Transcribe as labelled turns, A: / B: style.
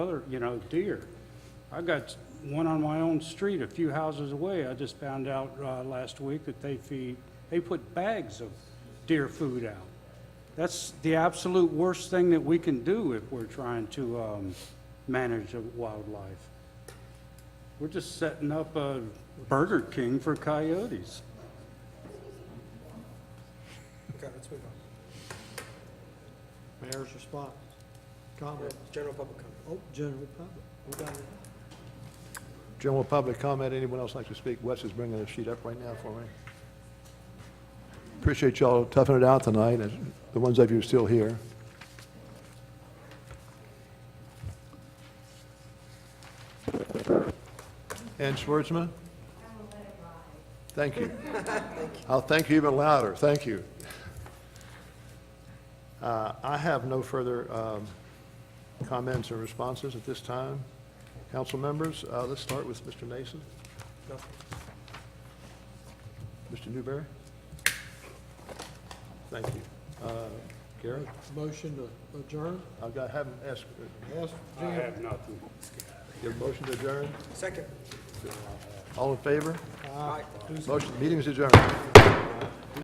A: other, you know, deer. I got one on my own street, a few houses away. I just found out uh, last week that they feed, they put bags of deer food out. That's the absolute worst thing that we can do if we're trying to um, manage the wildlife. We're just setting up a Burger King for coyotes.
B: Okay, let's move on.
C: Mayor's response, comment,
B: General public comment.
C: oh, general public, we got it.
D: General public comment, anyone else like to speak? Wes is bringing the sheet up right now for me. Appreciate y'all toughing it out tonight, and the ones of you still here. Ann Schwartzman? Thank you. I'll thank you even louder, thank you. Uh, I have no further um, comments or responses at this time. Council members, uh, let's start with Mr. Nason.
B: Nothing.
D: Mr. Newberry? Thank you. Uh, Garrett,
C: Motion to adjourn,
D: I've got, haven't asked, uh,
C: ask
A: I have nothing.
D: your motion to adjourn?
B: Second.
D: All in favor?
B: Aye.
D: Motion, meeting is adjourned.